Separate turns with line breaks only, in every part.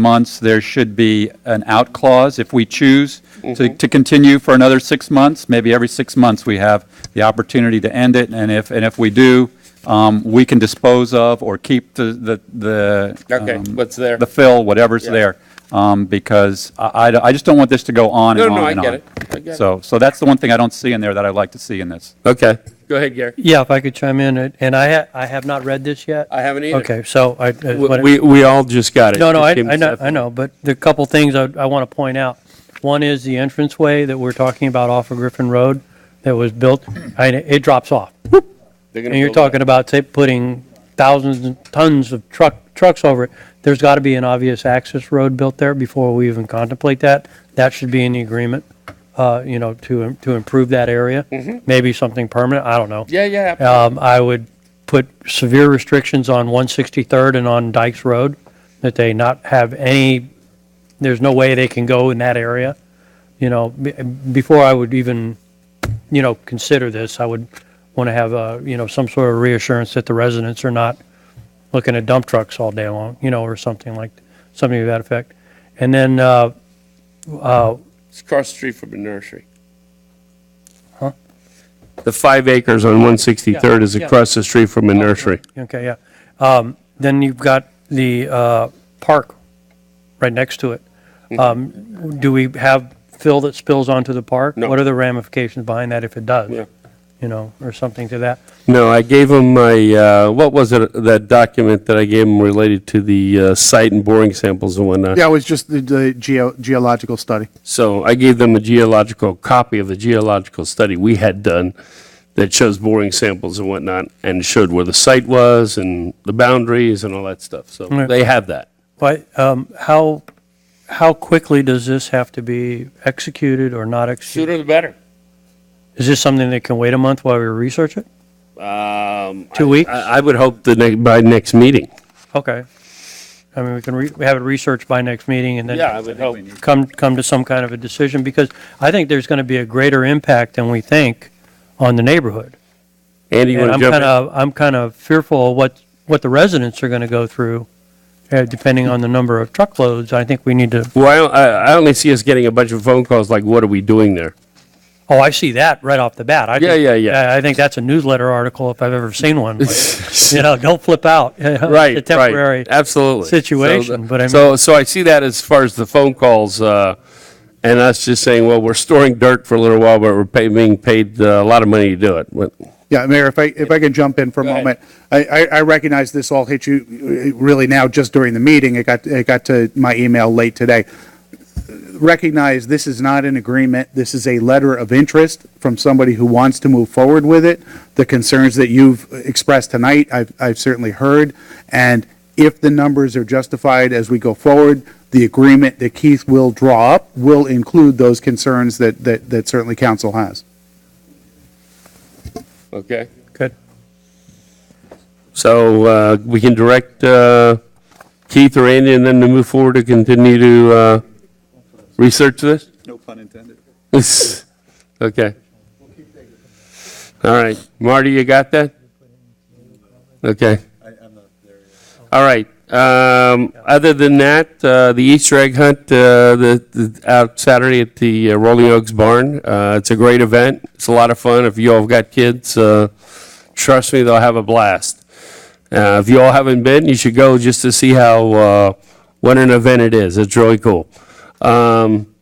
months, there should be an out clause if we choose
Mm-hmm.
to, to continue for another six months. Maybe every six months, we have the opportunity to end it, and if, and if we do, um, we can dispose of or keep the, the, the.
Okay,
um,
what's there.
The fill, whatever's
Yeah.
there, um, because I, I, I just don't want this to go on
No,
and
no,
on
I
and on.
get it. I get it.
So, so that's the one thing I don't see in there that I'd like to see in this.
Okay. Go ahead, Gary.
Yeah, if I could chime in, uh, and I, ha- I have not read this yet.
I haven't either.
Okay, so I. I wanna-
We, we all just got it.
No, no, I,
It came
I know,
separate.
I know, but the couple things I, I want to point out. One is the entranceway that we're talking about off of Griffin Road that was built, I, it drops off.
They're gonna
And you're
build it.
talking about, say, putting thousands and tons of truck, trucks over it. There's got to be an obvious access road built there before we even contemplate that. That should be in the agreement, uh, you know, to, to improve that area.
Mm-hmm.
Maybe something permanent, I don't know.
Yeah, yeah.
Um, I would put severe restrictions on 163rd and on Dykes Road, that they not have any, there's no way they can go in that area. You know, be- before I would even, you know, consider this, I would want to have, uh, you know, some sort of reassurance that the residents are not looking at dump trucks all day long, you know, or something like, something to that effect. And then, uh,
It's across the street from the nursery.
The five acres on 163rd is
Yeah, yeah.
across the street from a
Oh,
nursery.
Okay, yeah. Um, Then you've got the uh, park right next to it.
Mm-hmm.
Um, Do we have fill that spills onto the park?
No.
What are the ramifications behind that if it does?
Yeah.
You know, or something to that.
No, I gave him my, uh, what was it, that document that I gave him related to the uh, site and boring samples and whatnot?
Yeah, it was just the, the geo, geological study.
So I gave them a geological copy of the geological study we had done that shows boring samples and whatnot, and showed where the site was and the boundaries and all that stuff. So
Right.
they have that.
But um, how, how quickly does this have to be executed or not executed?
Sooner the better.
Is this something that can wait a month while we research it?
Um,
Two weeks?
I, I would hope the next, by next meeting.
Okay. I mean, we can re- we have it researched by next meeting and then.
yeah, I would hope.
come, come to some kind of a decision, because I think there's going to be a greater impact than we think on the neighborhood.
Andy, you
And
want to jump
I'm kind
in?
of, I'm kind of fearful of what, what the residents are going to go through, uh, depending on the number of truckloads. I think we need to,
Well, I, I only see us getting a bunch of phone calls like, what are we doing there?
oh, I see that right off the bat. I
Yeah,
think-
yeah, yeah.
I- I think that's a newsletter article if I've ever seen one. You know, don't flip out.
Right,
The
right.
temporary.
Absolutely. So
situation,
the-
but I mean-
So, so I see that as far as the phone calls, uh, and us just saying, well, we're storing dirt for a little while, but we're pay- being paid uh, a lot of money to do it. What-
Yeah, Mayor, if I, if I can jump in for a
Go ahead.
moment. I, I, I recognize this all hit you uh, really now just during the meeting. It got, it got to my email late today. Recognize this is not an agreement. This is a letter of interest from somebody who wants to move forward with it. The concerns that you've expressed tonight, I've, I've certainly heard. And if the numbers are justified as we go forward, the agreement that Keith will draw up will include those concerns that, that, that certainly council has.
Okay.
Good.
So uh, we can direct uh, Keith or Andy and then to move forward to continue to uh, research this?
No pun intended.
Okay. All right. Marty, you got that? Okay. All right. Um, Other than that, uh, the Easter egg hunt, uh, the, the- out Saturday at the uh, Rolling Oaks Barn. Uh, It's a great event. It's a lot of fun. If you all have got kids, uh, trust me, they'll have a blast. Uh, If you all haven't been, you should go just to see how, uh, what an event it is. It's really cool. Um,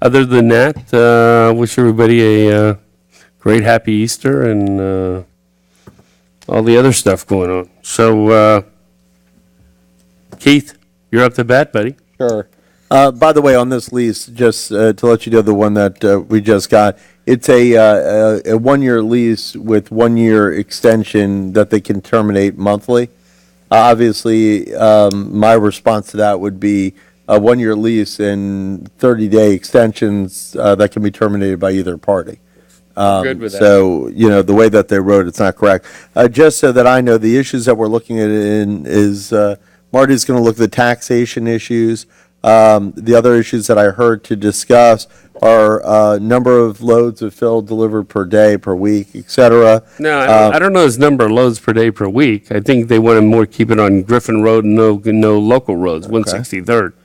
other than that, uh, wish everybody a uh, great happy Easter and uh, all the other stuff going on. So, uh, Keith, you're up to bat, buddy.
Sure. Uh, by the way, on this lease, just uh, to let you know, the one that uh, we just got, it's a, uh, a, a one-year lease with one-year extension that they can terminate monthly. Obviously, um, my response to that would be a one-year lease and 30-day extensions uh, that can be terminated by either party. Um,
Good with that.
So, you know, the way that they wrote, it's not correct. Uh, Just so that I know, the issues that we're looking at in is, uh, Marty's going to look at the taxation issues. Um, The other issues that I heard to discuss are uh, number of loads of fill delivered per day, per week, et cetera.
No, I don't, I don't know his number of loads per day per week. I think they want to more keep it on Griffin Road and no, no local roads, 163rd.